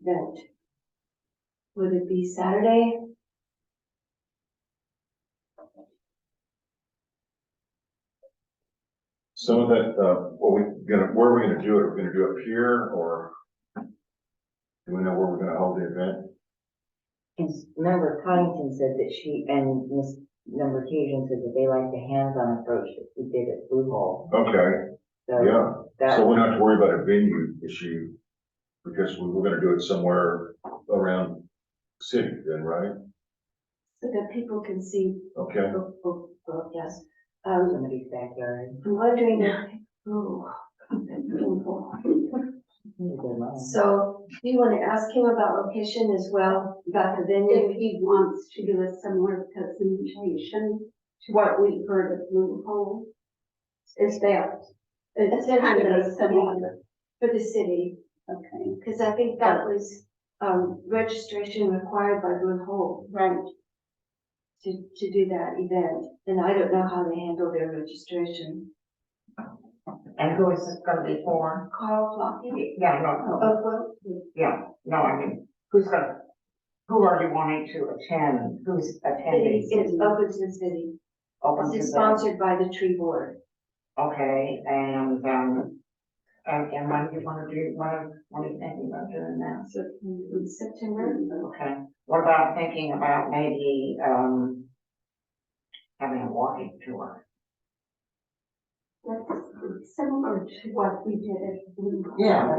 event. Would it be Saturday? So that, uh, well, we gonna, where are we gonna do it? Are we gonna do it here or? Do we know where we're gonna hold the event? Cause member Connington said that she and Miss member Cajun said that they like the hands-on approach that we did at Blue Hole. Okay, So yeah, so that, we don't have to worry about a venue issue because we we're gonna do it somewhere around city then, right? So that people can see, Okay, oh, oh, oh, yes. Um, somebody's backyard. I'm wondering, if- oh, that's painful. So do you want to ask him about location as well, about the venue? if he wants to do a similar presentation to what we heard at Blue Hole. Is that, It's kind of a similar, For the city, okay, because I think that was, um, registration required by Blue Hole right, to, to do that event. And I don't know how they handle their registration. And who is this gonna be for? Carl Flocky? Yeah, no, no, Oh, well, yeah, no, I mean, who's gonna, who are you wanting to attend? Who's attending? it's it's open to the city. Open to It's the, sponsored by the tree board. okay, and, um, and, and when do you wanna do, when, when are you thinking about doing that? So in September, Okay, what about thinking about maybe, um, having a walking tour? that's similar to what we did at Blue Hole. yeah.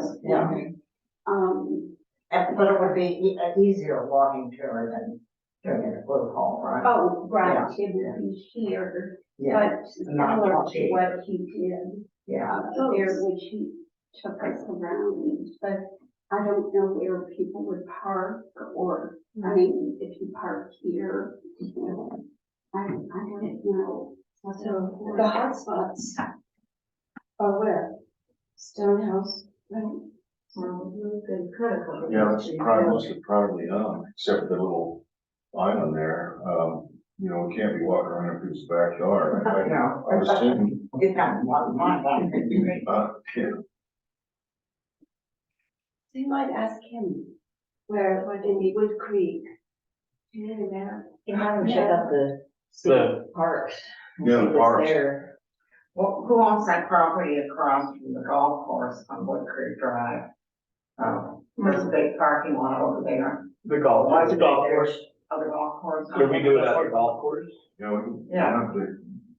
Um, And, but it would be e- an easier walking tour than doing it at Blue Hall, right? oh, right, it would be here, Yeah, but Not similar to watching. what he did, yeah. uh, there, which he took us around, but I don't know where people would park or Hmm. I mean, if you park here, you know, I, I don't know. so the hotspots are where? Stonehouse, right? yeah, that's probably, mostly privately owned, except for the little island there. Um, you know, we can't be walking around in people's backyard. I- I- No. I was thinking, It's not one month, I'm thinking, uh, yeah, So you might ask him where, what in the Wood Creek. Do you know that? You have to check out the The- city parks. and Yeah, see the what's parks. there. Well, who owns that property across from the golf course on Wood Creek Drive? Um, there's a big parking lot over there. The golf, Why is the it golf there? course. Oh, the golf course. Could we do it at the golf course? you know, we Yeah. don't have to-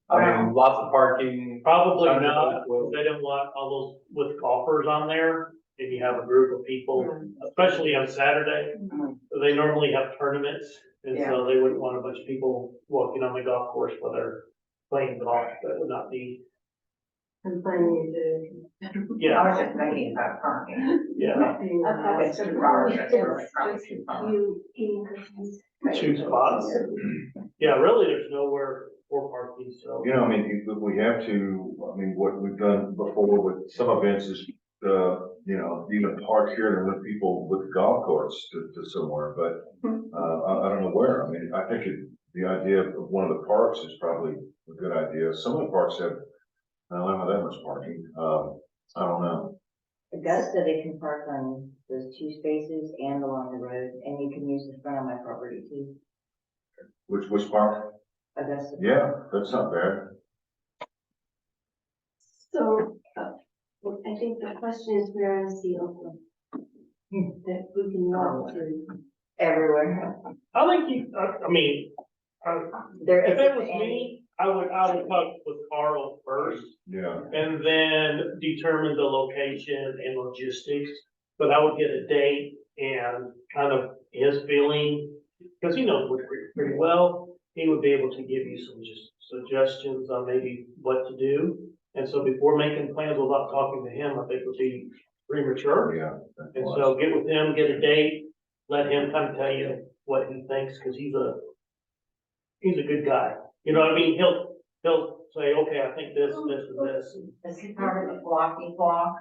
I mean, lots of parking. Probably Under the not, golf. because they don't want all those with golfers on there, if you have a group of people, especially on Saturday. Mhm. They normally have tournaments, and Yeah. so they wouldn't want a bunch of people walking on the golf course while they're playing golf, that would not be, I yeah, was just thinking about parking. yeah. It's too far, it's really probably too far. You eating cookies? Uh-huh. Two spots. Yeah, really, there's nowhere for parking, so. You know, I mean, if if we have to, I mean, what we've done before with some events is, uh, you know, you can park here and let people with golf course to, to somewhere, but, uh, I, I don't know where. I mean, I think it, the idea of one of the parks is probably a good idea. Some of the parks have, I don't have that much parking, um, I don't know. Augusta, they can park on those two spaces and along the road, and you can use the front of my property too. Which, which park? Augusta. Yeah, that's not bad. So, uh, well, I think the question is, where is the open? That we can walk to. Everywhere. I think you, I, I mean, I- There if it isn't was any. me, I would, I would talk with Carl first. Yeah, And then determine the location and logistics, but I would get a date and kind of his feeling. Cause he knows Wood Creek pretty well, he would be able to give you some just suggestions on maybe what to do. And so before making plans without talking to him, I think would be premature. yeah. And so get with him, get a date, let him kind of tell you what he thinks, cause he's a, he's a good guy. You know what I mean? He'll, he'll say, okay, I think this, this, and this. Is he part of the blocky block?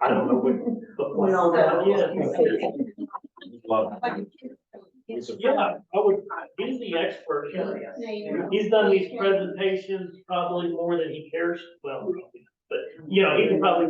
I don't know what. the- We all know. Yeah. Love. Yeah, I would, he's the expert. Curious. Mm-hmm. He's done these presentations probably more than he cares, well, but, you know, he can probably